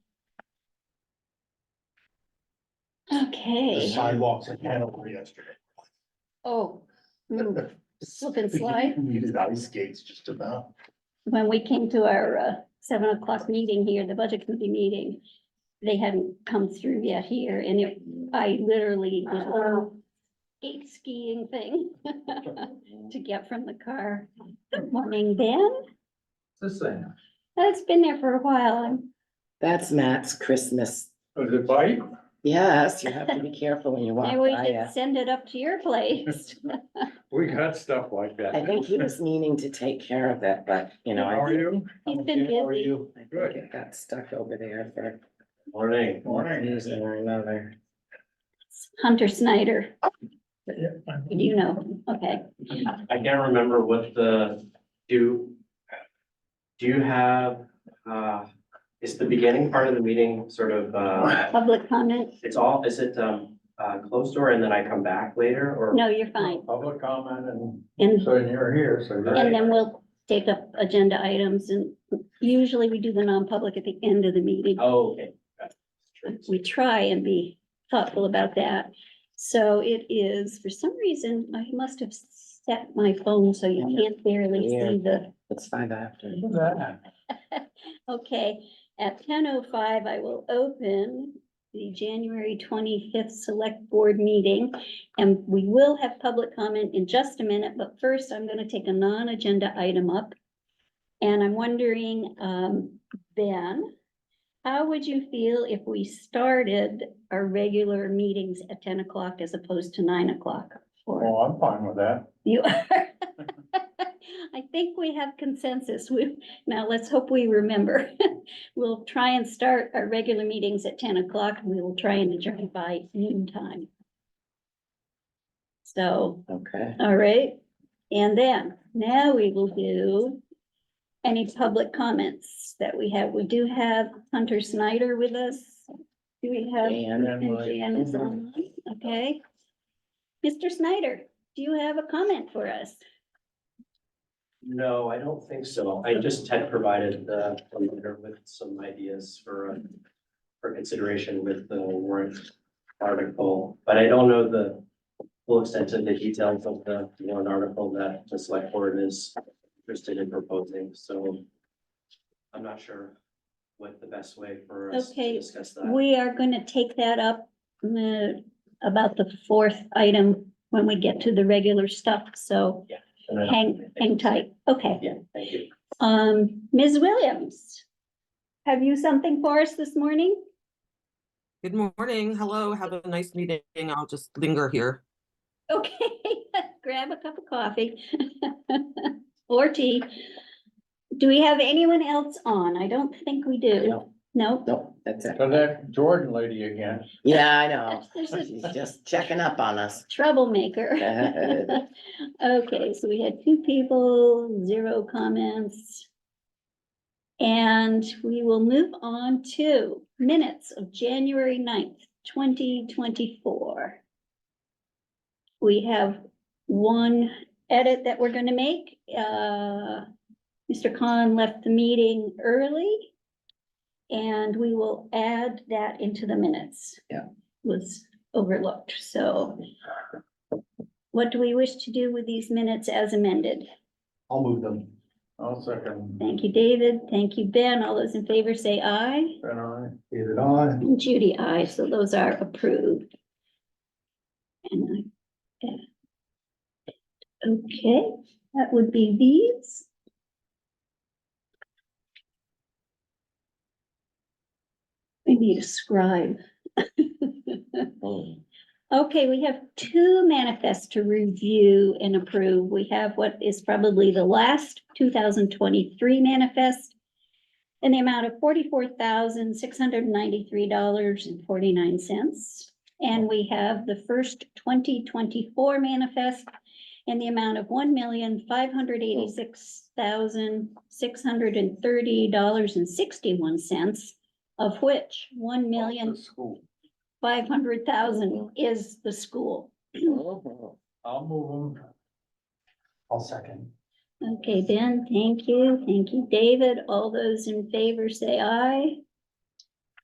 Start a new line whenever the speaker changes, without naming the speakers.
The
Okay,
sidewalks in Hanover yesterday.
oh, mm, slip and slide.
Needed ice skates just about.
When we came to our uh, seven o'clock meeting here, the budget committee meeting, they hadn't come through yet here and it, I literally was skate skiing thing to get from the car. Good morning, Ben.
This thing.
It's been there for a while.
That's Matt's Christmas.
Oh, the bike?
Yes, you have to be careful when you walk
Maybe we
by
uh,
should
it.
send it up to your place.
We got stuff like that.
I think he was meaning to take care of it, but you know,
How
I
are you?
He's been
How are
busy.
you?
I think
Good.
it got stuck over there for
Morning.
one
Morning.
reason or another.
Hunter Snyder,
Yeah.
you know, okay.
I can't remember what the, do. Do you have, uh, is the beginning part of the meeting sort of, uh,
Public comment?
it's all, is it, um, uh, closed door and then I come back later or?
No, you're fine.
Public comment and
And
so you're here, so. you're-
And then we'll take up agenda items and usually we do the non-public at the end of the meeting.
Oh, okay. Got it.
We try and be thoughtful about that. So it is, for some reason, I must have set my phone so you can't barely see the,
It's five after.
Look at that.
okay. At ten oh five, I will open the January twenty-fifth select board meeting. And we will have public comment in just a minute, but first I'm gonna take a non-agenda item up. And I'm wondering, um, Ben, how would you feel if we started our regular meetings at ten o'clock as opposed to nine o'clock? Or
Well, Oh, I'm fine with that.
you are? I think we have consensus. We, now let's hope we remember. We'll try and start our regular meetings at ten o'clock. and We will try and adjourn by noon time. So
Okay.
all right, and then now we will do any public comments that we have. We do have Hunter Snyder with us. Do we have?
Dan,
and Jan is on, Okay. Mr. Snyder, do you have a comment for us?
No, I don't think so. I just had provided the, the letter with some ideas for, uh, for consideration with the warrant article, but I don't know the full extent of the details of the warrant article that the select board is interested in proposing, so I'm not sure what the best way for us
Okay,
to discuss that.
We are going to take that up uh, about the fourth item when we get to the regular stuff, so
And I-
hang, hang tight. Okay.
Yeah, thank you.
Um, Ms. Williams, have you something for us this morning?
Good morning. Hello. Have a nice meeting. I'll just linger here.
Okay, grab a cup of coffee or tea. Do we have anyone else on? I don't think we do.
No.
No?
Nope, that's it.
So that Jordan lady again.
Yeah, I know.
There's a
She's just checking up on us.
troublemaker. Okay, so we had two people, zero comments. And we will move on to minutes of January 9th, twenty twenty-four. We have one edit that we're gonna make. Uh, Mr. Khan left the meeting early. And we will add that into the minutes.
Yeah.
Was overlooked, so what do we wish to do with these minutes as amended?
I'll move them. I'll second.
Thank you, David. Thank you, Ben. All those in favor say aye.
Ben, aye. David, aye.
And Judy, aye. So those are approved. And I. yeah. Okay, that would be these. We need a scribe.
Hmm.
Okay, we have two manifests to review and approve. We have what is probably the last two thousand twenty-three manifest in the amount of forty-four thousand, six hundred and ninety-three dollars and forty-nine cents. And we have the first twenty twenty-four manifest in the amount of one million, five hundred eighty-six thousand, six hundred and thirty dollars and sixty-one cents, of which one million,
The School.
five hundred thousand is the school. Oh,
Mhm.
I'll move them. I'll second.
Okay, Ben, thank you. Thank you, David. All those in favor say aye.